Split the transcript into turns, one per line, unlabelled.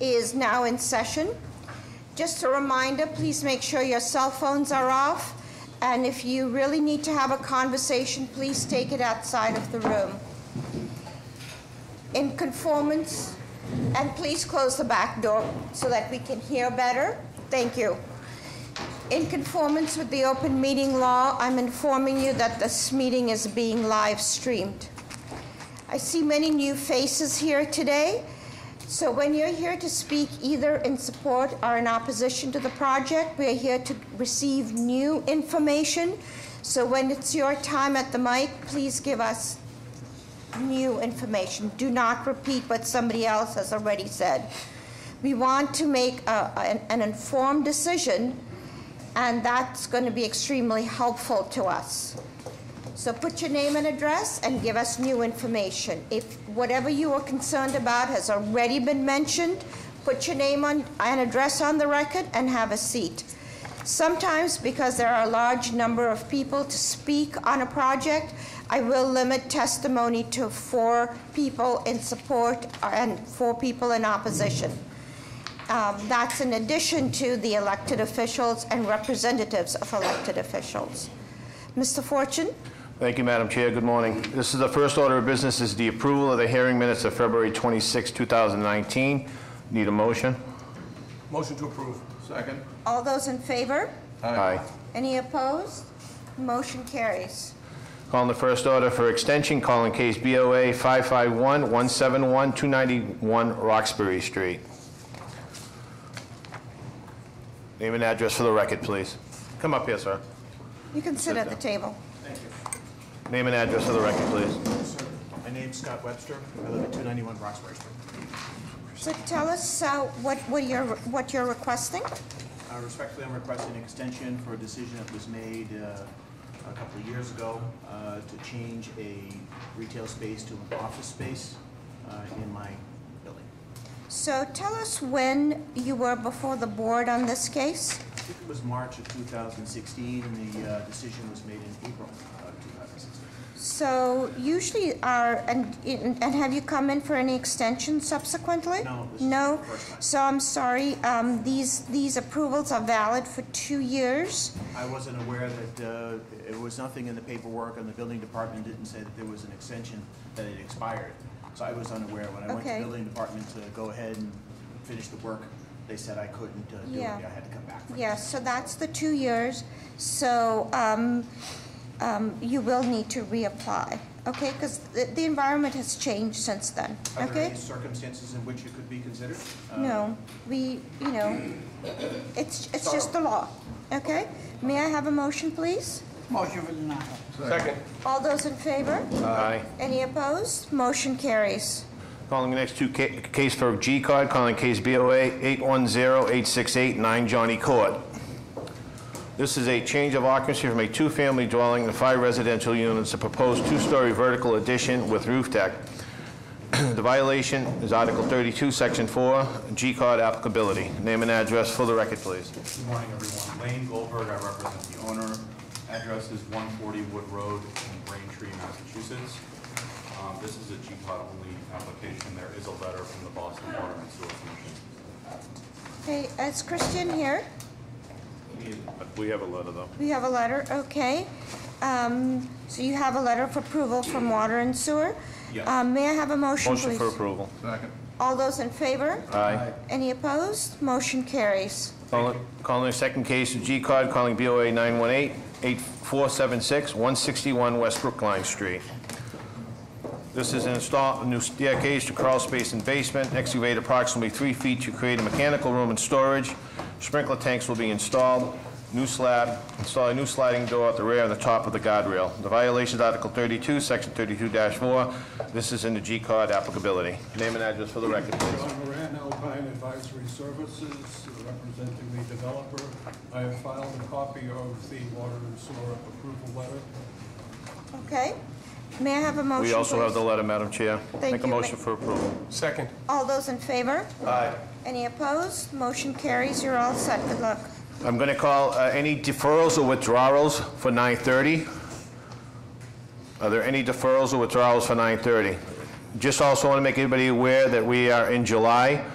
is now in session. Just a reminder, please make sure your cell phones are off, and if you really need to have a conversation, please take it outside of the room. In conformance, and please close the back door so that we can hear better. Thank you. In conformance with the open meeting law, I'm informing you that this meeting is being live streamed. I see many new faces here today. So when you're here to speak either in support or in opposition to the project, we are here to receive new information. So when it's your time at the mic, please give us new information. Do not repeat what somebody else has already said. We want to make a- an an informed decision, and that's going to be extremely helpful to us. So put your name and address and give us new information. If whatever you are concerned about has already been mentioned, put your name on, and address on the record and have a seat. Sometimes, because there are a large number of people to speak on a project, I will limit testimony to four people in support and four people in opposition. Um, That's in addition to the elected officials and representatives of elected officials. Mr. Fortune?
Thank you, Madam Chair. Good morning. This is the first order of business is the approval of the hearing minutes of February 26, 2019. Need a motion?
Motion to approve. Second.
All those in favor?
Aye.
Any opposed? Motion carries.
Calling the first order for extension, calling case BOA 551-171-291 Roxbury Street. Name and address for the record, please. Come up here, sir.
You can sit at the table.
Name and address for the record, please.
Sir, My name's Scott Webster. I live at 291 Roxbury Street.
So tell us uh, what what you're what you're requesting.
Uh, Respectfully, I'm requesting an extension for a decision that was made uh, a couple of years ago uh, to change a retail space to an office space uh, in my building.
So tell us when you were before the board on this case.
I think it was March of 2016, and the uh, decision was made in April of 2016.
So usually are, and and have you come in for any extension subsequently?
No, this is
No?
the first time.
So I'm sorry, um, these these approvals are valid for two years.
I wasn't aware that, uh, it was nothing in the paperwork, and the building department didn't say that there was an extension, that it expired. So I was unaware. When I went to
Okay.
the building department to go ahead and finish the work, they said I couldn't uh, do it.
Yeah.
I had to come back. for it.
Yes, so that's the two years, so um, um, you will need to reapply, okay? Because the environment has changed since then,
Are there
okay?
any circumstances in which it could be considered? Uh,
No, we, you know, it's, it's just the law, okay? May I have a motion, please?
Motion for denial.
Second.
All those in favor?
Aye.
Any opposed? Motion carries.
Calling the next two, ca- case for G card, calling case BOA 810-868-9 Johnny Court. This is a change of occupancy from a two-family dwelling to five residential units, a proposed two-story vertical addition with roof deck. The violation is Article 32, Section 4, G card applicability. Name and address for the record, please.
Good morning, everyone. Lane Goldberg, I represent the owner. Address is 140 Wood Road in Braintree, Massachusetts. Um, This is a GPOT only application. There is a letter from the Boston Water and Sewer Commission.
Okay, is Christian here?
We have a letter, though.
We have a letter, okay. Um, So you have a letter of approval from Water and Sewer?
Yes.
Um, May I have a motion, please?
Motion for approval.
All those in favor?
Aye.
Any opposed? Motion carries.
Calling calling the second case of G card, calling BOA 918-8476-161 West Brookline Street. This is install a new staircase to crawl space and basement, excavate approximately three feet to create a mechanical room and storage. Sprinkler tanks will be installed, new slab, install a new sliding door at the rear and the top of the guardrail. The violation is Article 32, Section 32-4. This is in the G card applicability. Name and address for the record, please.
John Moran, Alpine Advisory Services, representing the developer. I have filed a copy of the water and sewer approval letter.
Okay? May I have a motion,
We also have the
please?
letter, Madam Chair.
Thank
Make a
you.
motion for approval.
Second.
All those in favor? Aye. Any opposed? Motion carries. You're all set. Good luck.
I'm going to call uh, any deferrals or withdrawals for 9:30. Are there any deferrals or withdrawals for 9:30? Just also want to make everybody aware that we are in July.